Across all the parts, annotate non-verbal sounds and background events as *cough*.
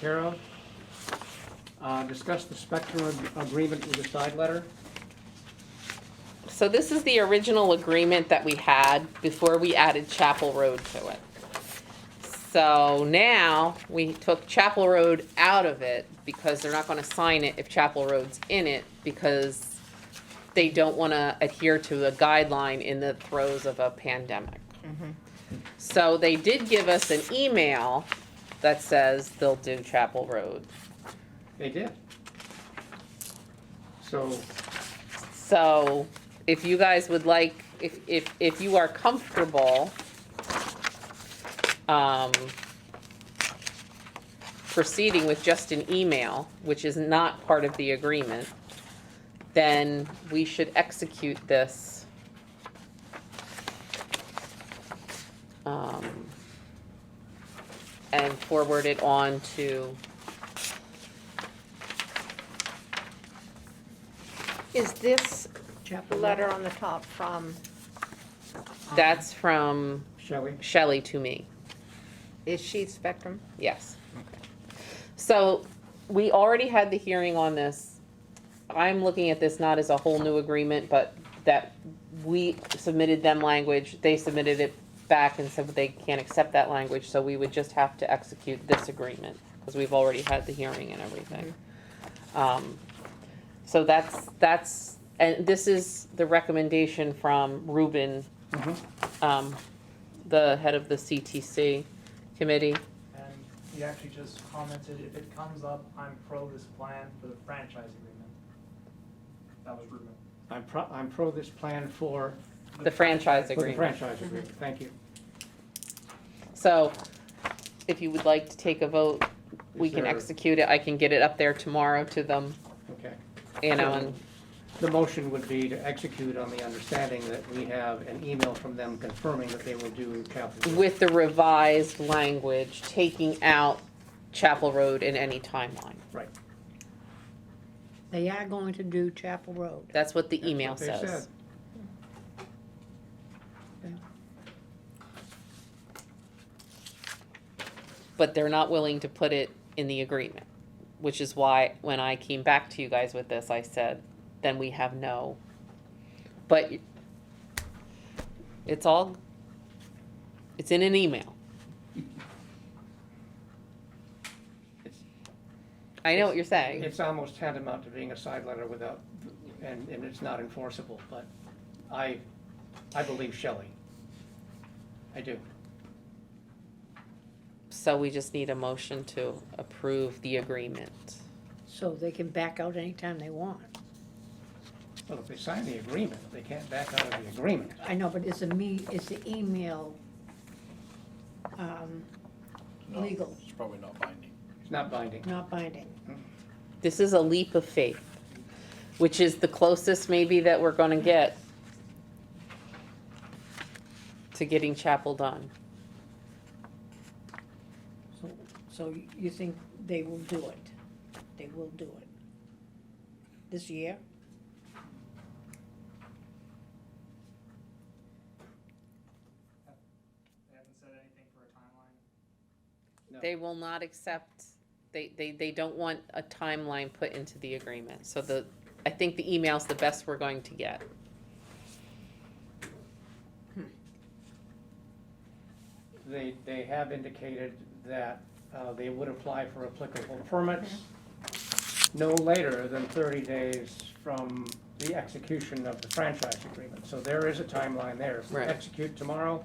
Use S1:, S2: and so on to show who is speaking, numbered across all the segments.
S1: care of. Uh, Discuss the spectrum ag- agreement with the side letter.
S2: So this is the original agreement that we had before we added Chapel Road to it. So now, we took Chapel Road out of it because they're not gonna sign it if Chapel Road's in it because they don't wanna adhere to a guideline in the throes of a pandemic. So they did give us an email that says they'll do Chapel Road.
S1: They did. So
S2: So if you guys would like, if, if, if you are comfortable, um, proceeding with just an email, which is not part of the agreement, then we should execute this. Um, and forward it on to,
S3: Is this
S1: Chapter
S3: letter on the top from,
S2: that's from
S1: shall we?
S2: Shelley to me.
S3: is she Spectrum?
S2: Yes. So we already had the hearing on this. I'm looking at this not as a whole new agreement, but that we submitted them language, they submitted it back and said that they can't accept that language, so we would just have to execute this agreement, because we've already had the hearing and everything. Um, So that's, that's, and this is the recommendation from Ruben,
S1: Mhm.
S2: um, the head of the CTC committee.
S4: And he actually just commented, if it comes up, I'm pro this plan for the franchise agreement. That was Ruben.
S1: I'm pro, I'm pro this plan for,
S2: The
S1: for
S2: franchise
S1: the
S2: agreement.
S1: franchise agreement. Thank you.
S2: So if you would like to take a vote, we
S1: Is
S2: can
S1: there-
S2: execute it. I can get it up there tomorrow to them,
S1: Okay.
S2: you know, and,
S1: The motion would be to execute on the understanding that we have an email from them confirming that they will do Chapel. Road.
S2: with the revised language, taking out Chapel Road in any timeline.
S1: Right.
S5: They are going to do Chapel Road.
S2: That's what the
S1: That's
S2: email
S1: what they
S2: says.
S1: said.
S2: But they're not willing to put it in the agreement, which is why when I came back to you guys with this, I said, then we have no. But it's all, it's in an email. I know what you're saying.
S1: It's almost tantamount to being a side letter without, and, and it's not enforceable, but I, I believe Shelley. I do.
S2: So we just need a motion to approve the agreement.
S5: So they can back out anytime they want.
S1: Well, if they sign the agreement, they can't back out of the agreement.
S5: I know, but is the me, is the email, um,
S6: No,
S5: Legal.
S6: It's probably not binding.
S1: It's not binding.
S5: not binding?
S2: This is a leap of faith, which is the closest maybe that we're gonna get to getting chapel done.
S5: So, so you think they will do it? They will do it? This year?
S4: They haven't said anything for a timeline.
S2: They will not accept, they, they, they don't want a timeline put into the agreement. So the, I think the email's the best we're going to get.
S1: They, they have indicated that uh, they would apply for applicable permits no later than 30 days from the execution of the franchise agreement. So there is a timeline there. If we
S2: Right.
S1: execute tomorrow,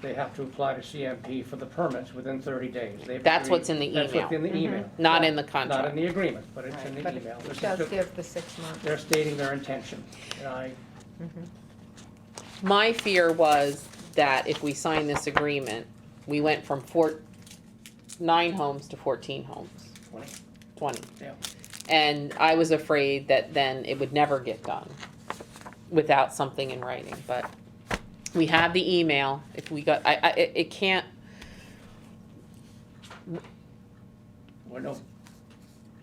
S1: they have to apply to CMP for the permits within 30 days. They've
S2: That's
S1: agreed-
S2: what's in the Mm-hmm.
S1: That's what's in the email.
S2: Not in the
S1: Not in
S2: contract.
S1: the agreement, but it's in the
S3: But
S1: email. This
S3: it
S1: is
S3: does
S1: just-
S3: give the six months.
S1: They're stating their intention, and I,
S2: My fear was that if we sign this agreement, we went from four, nine homes to fourteen homes, twenty.
S1: yeah.
S2: And I was afraid that then it would never get done without something in writing, but we have the email, if we got, I, I, it, it can't,
S1: we're no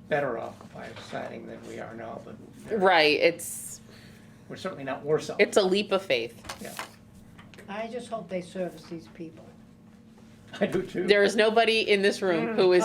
S1: better off by signing than we are now, but
S2: right, it's,
S1: we're certainly not worse off.
S2: it's a leap of faith.
S1: Yeah,
S5: I just hope they service these people.
S1: *laughs* I do too.
S2: There is nobody in this room who is